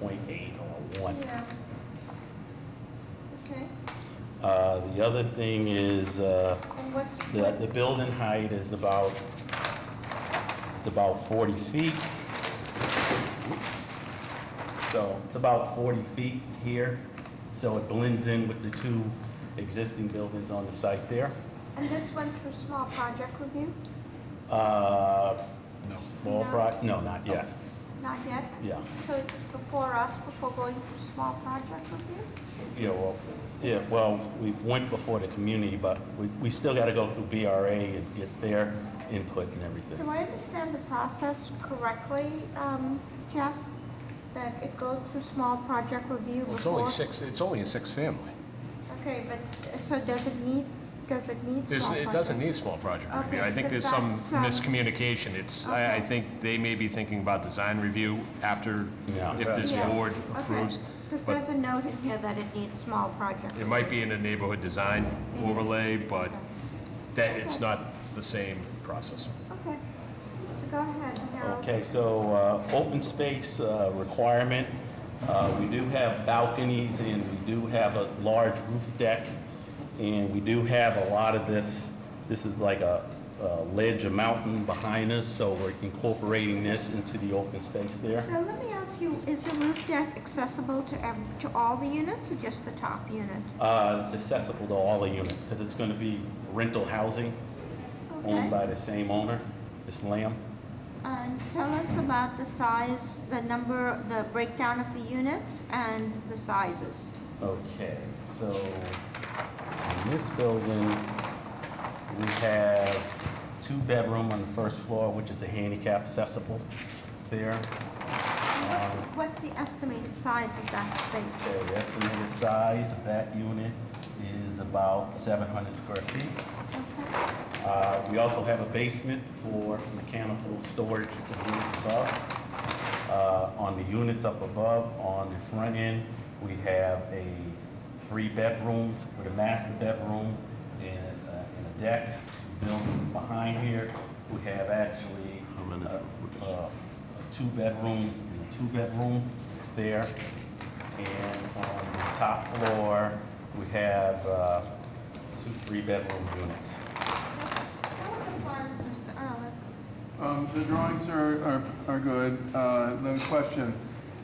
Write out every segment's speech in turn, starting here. point eight or one. Yeah. Okay, Uh, the other thing is, uh, and what's, the, the building height is about, it's about forty feet. So it's about forty feet here, so it blends in with the two existing buildings on the site there. and this went through small project review? Uh, No. small No. pro, no, not yet, Not yet? yeah. So it's before us, before going through small project review? Yeah, well, yeah, well, we went before the community, but we, we still gotta go through BRA and get their input and Do everything. I understand the process correctly, um, Jeff? That it goes through small project review before? Well, It's only six, it's only a six-family. Okay, but, uh, so does it need, does it need small There's, project? it doesn't need small project review. Okay, I think because there's some that's, um, miscommunication. It's, I, I Okay. think they may be thinking about design review after, Yeah. if this Yes, board okay. approves. Because but- there's a note in here that it needs small project. It might be in a neighborhood design overlay, but that, it's not the same process. Okay, so go ahead, Harold. Okay, so, uh, open space, uh, requirement, uh, we do have balconies and we do have a large roof deck. And we do have a lot of this, this is like a, a ledge, a mountain behind us, so we're incorporating this into the open space there. So let me ask you, is the roof deck accessible to, ev- to all the units or just the top unit? Uh, it's accessible to all the units, because it's gonna be rental housing. Okay. owned by the same owner, Miss Lamb. And tell us about the size, the number, the breakdown of the units and the sizes. Okay, so in this building, we have two bedroom on the first floor, which is a handicap accessible there. And What's, what's the estimated size of that space? Okay, the estimated size of that unit is about 700 square feet. Okay. Uh, We also have a basement for mechanical storage of the units above. Uh, On the units up above, on the front end, we have a three bedrooms with a master bedroom and a- and a deck. Building behind here, we have actually uh, uh, two bedrooms and a two-bedroom there. And on the top floor, we have uh, two three-bedroom units. What are the plans, Mr. Ehrlich? Um, The drawings are, are, are good. Uh, The question,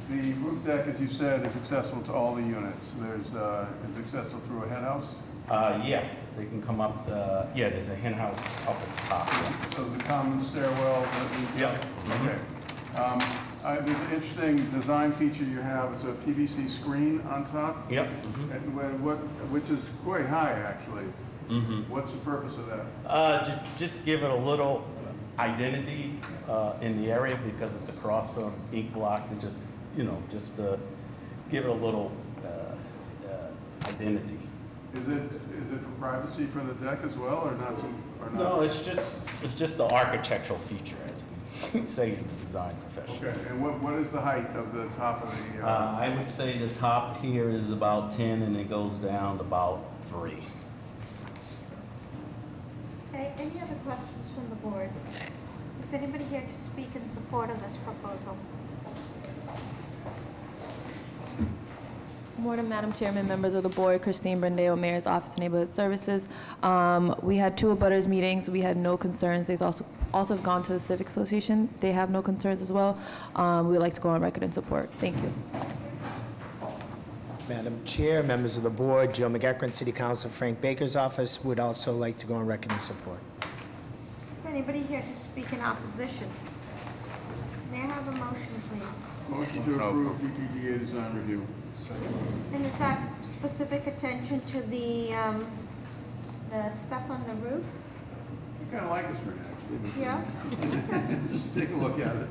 the roof deck, as you said, is accessible to all the units. There's, uh, it's accessible through a head house. Uh, yeah, they can come up, uh, yeah, there's a hen house up at the top. yeah. So there's a common stairwell that we. Yep. Okay. Um, I- There's an interesting design feature you have. It's a PVC screen on top. Mm-hmm. Yep. And wh- what, which is quite high, actually. What's the purpose of that? Uh, ju- just give it a little identity, uh, in the area because it's across from Ink Block and just, you know, just, uh, give it a little, uh, uh, identity. Is it, is it for privacy for the deck as well, or not some, or not? No, it's just, it's just the architectural feature as we say in the design profession. Okay, and what, what is the height of the top of the? Uh, I would say the top here is about ten and it goes down to about three. Okay, any other questions from the board? Is anybody here to speak in support of this proposal? Morning, Madam Chairman, members of the board, Christine Brendeo, Mayor's Office of Neighborhood Services. Um, We had two abutters meetings, we had no concerns. They've also, also have gone to the Civic Association, they have no concerns as well. Um, We would like to go on record in support. Thank you. Madam Chair, members of the board, Joe McEckern, City Council, Frank Baker's office would also like to go on record in support. Is anybody here to speak in opposition? May I have a motion, please? Motion to approve BTDA design review. And is that specific attention to the, um, the stuff on the roof? I kind of like this one, actually. Yeah? Just Take a look at it.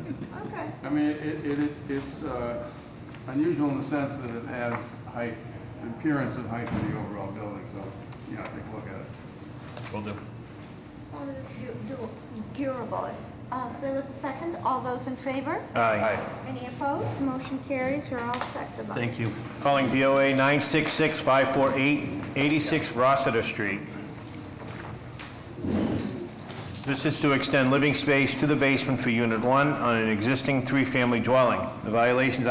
Okay, I mean, it, it, it- it's uh, unusual in the sense that it has height, appearance of height to the overall building, so, you know, take a look at it. Will do. as long as it's du- du- durable. It's- Uh, if there was a second, all those in favor? Aye. Any opposed? Motion carries, you're all set, Devon. Thank you. Calling BOA 966-548-86 Rossiter Street. This is to extend living space to the basement for Unit 1 on an existing three-family dwelling. The violations